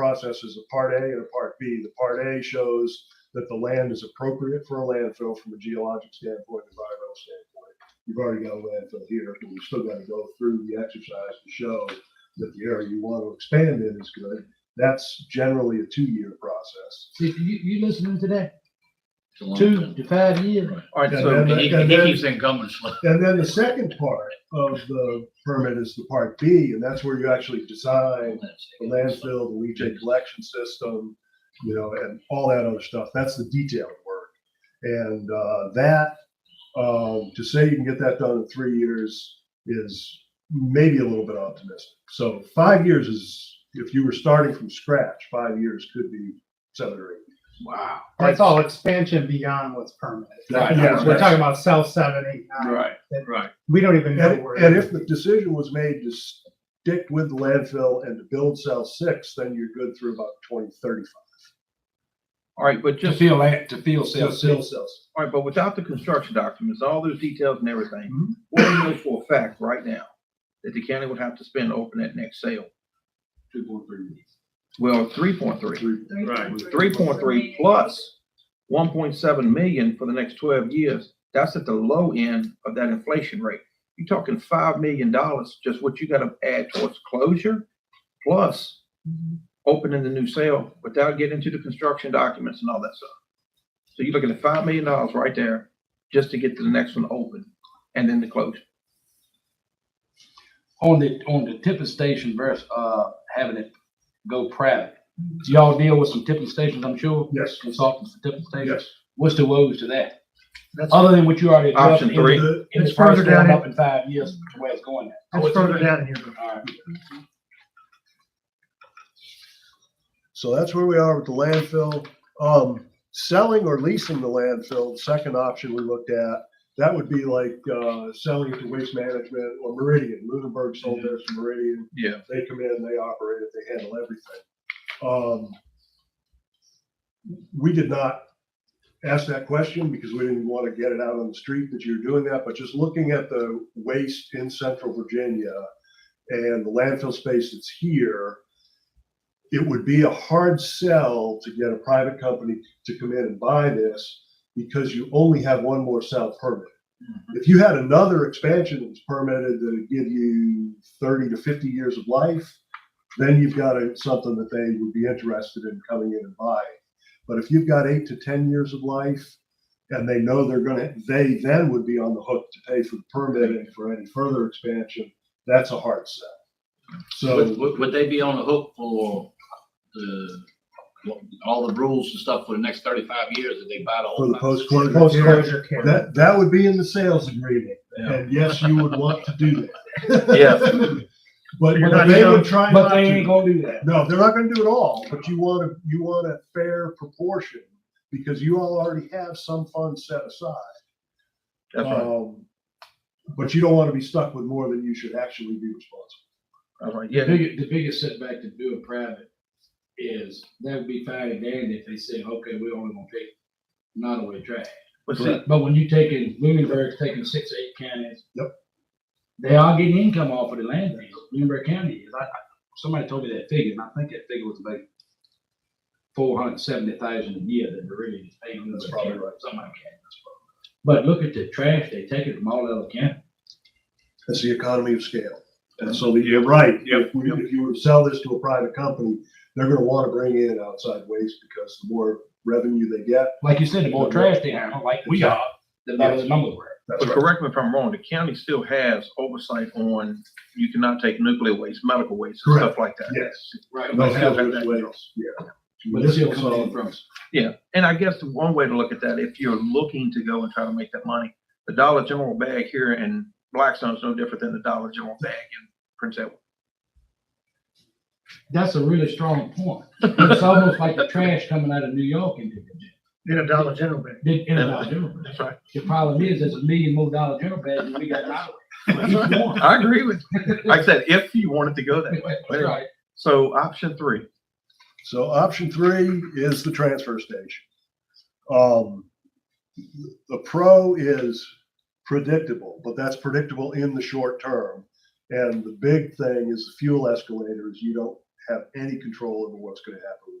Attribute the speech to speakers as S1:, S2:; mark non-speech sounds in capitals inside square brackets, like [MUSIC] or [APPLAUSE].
S1: process is a part A and a part B. The part A shows that the land is appropriate for a landfill from a geologic standpoint, environmental standpoint. You've already got a landfill here, but we've still got to go through the exercise to show that the area you want to expand in is good. That's generally a two-year process.
S2: See, you, you listening to that?
S3: It's a long
S2: Two
S3: time.
S2: to five years.
S3: Right.
S4: All right,
S1: Yeah,
S4: so,
S1: man.
S3: And he,
S1: and
S3: and he
S1: then-
S3: keeps saying come and slow.
S1: And then the second part of the permit is the part B, and that's where you actually design the landfill, the leachate collection system, you know, and all that other stuff. That's the detailed work. And uh, that, um, to say you can get that done in three years is maybe a little bit optimistic. So five years is, if you were starting from scratch, five years could be seven or eight.
S3: Wow.
S5: That's all expansion beyond what's permanent.
S3: Right.
S1: Yeah,
S5: We're talking about south seven, eight, nine.
S3: Right, right.
S5: We don't even know
S1: And,
S5: where.
S1: and if the decision was made to stick with the landfill and to build cell six, then you're good through about twenty thirty-five.
S4: all right, but
S6: To
S4: just,
S6: feel, that- to feel
S1: Cell,
S6: self,
S1: cell, cells.
S4: all right, but without the construction documents, all those details and everything,
S1: Mhm.
S4: what do you know for a fact right now that the county would have to spend to open that next sale?
S1: Two point three.
S4: Well, three point three.
S3: Right.
S4: Three point three plus one point seven million for the next twelve years. That's at the low end of that inflation rate. You're talking five million dollars, just what you gotta add towards closure, plus opening the new sale without getting into the construction documents and all that stuff. So you're looking at five million dollars right there, just to get to the next one open and then the closure.
S6: on the, on the tipping station versus, uh, having it go private.
S5: Mm-hmm.
S6: Do y'all deal with some tipping stations, I'm sure?
S1: Yes,
S6: Consultants for tipping stations?
S1: yes.
S6: What's the woes to that?
S5: That's-
S6: Other than what you already. addressed
S4: Option
S6: in the-
S4: three.
S1: The-
S6: In the
S5: It's further
S6: first round
S5: down.
S6: up in five years, to where it's going. at.
S5: It's further down in your book.
S6: All right.
S1: So that's where we are with the landfill. Um, selling or leasing the landfill, the second option we looked at, that would be like, uh, selling it to waste management or Meridian. Lunenburg sold theirs to Meridian.
S4: Yeah.
S1: They come in, they operate it, they handle everything. Um, we did not ask that question because we didn't want to get it out on the street that you're doing that, but just looking at the waste in central Virginia and the landfill space that's here, it would be a hard sell to get a private company to come in and buy this because you only have one more cell permit if you had another expansion that was permitted that would give you thirty to fifty years of life, then you've got a- something that they would be interested in coming in and buying. But if you've got eight to ten years of life, and they know they're gonna, they then would be on the hook to pay for the permit and for any further expansion, that's a hard sell.
S3: Would,
S1: So,
S3: would, would they be on the hook for the, all the rules and stuff for the next thirty-five years that they buy the
S1: for
S3: whole?
S1: the post-closure.
S5: Post
S1: period,
S5: closure care.
S1: That, that would be in the sales agreement,
S3: Yeah.
S1: and yes, you would want to do that.
S4: Yeah.
S1: But
S5: You're
S1: but
S5: not
S1: they
S5: gonna-
S1: would try not
S6: But
S1: to.
S6: they ain't gonna do that.
S1: No, they're not gonna do it all, but you want a, you want a fair proportion, because you all already have some funds set aside.
S4: That's right.
S1: Um, But you don't wanna be stuck with more than you should actually be responsible.
S4: That's right.
S6: The
S4: Yeah.
S6: biggest, the biggest setback to doing private is that would be fine and dandy if they said, okay, we're only gonna take not away trash.
S4: But see,
S6: But when you taking, Lunenburg's taking six, eight counties.
S1: Yep.
S6: They are getting income off of the land, deals. Lunenburg County, is. I, I- somebody told me that figure, and I think that figure was about four hundred and seventy thousand a year that they're really just paying.
S1: That's probably
S6: Lunenburg County,
S1: right.
S6: Something like that. That's probably- But look at the trash, they take it from all over county.
S1: It's the economy of scale. And so the- you're right,
S3: Yep,
S1: if, we- if you were to sell this to a private company, they're gonna wanna bring in outside waste, because the more revenue they get.
S6: Like you said, the more trash they have, like we are, the better the numbers were.
S1: that's
S4: But
S1: right.
S4: correct me if I'm wrong, the county still has oversight on, you cannot take nuclear waste, medical waste, and stuff like that.
S1: Yes.
S6: Right.
S1: No,
S4: But they have
S1: filtered
S4: that
S1: waste,
S4: control.
S1: yeah.
S6: But it's still
S1: Municipal
S6: coming in
S1: solid
S6: from.
S1: waste.
S4: And I guess the one way to look at that, if you're looking to go and try to make that money, the Dollar General bag here in Blackstone is no different than the Dollar General bag in Prince Edward.
S6: That's a really strong point. It's almost like the trash coming out of New York into Virginia.
S5: In a Dollar General bag.
S6: Big Dollar General bag.
S4: That's right.
S6: The problem is, there's a million more Dollar General bags than we got in our.
S4: I agree with, you. like I said, if you wanted to go that way.
S6: That's [LAUGHS] right.
S4: So option three,
S1: So option three is the transfer station. Um, the pro is predictable, but that's predictable in the short term. And the big thing is the fuel escalators. You don't have any control over what's gonna happen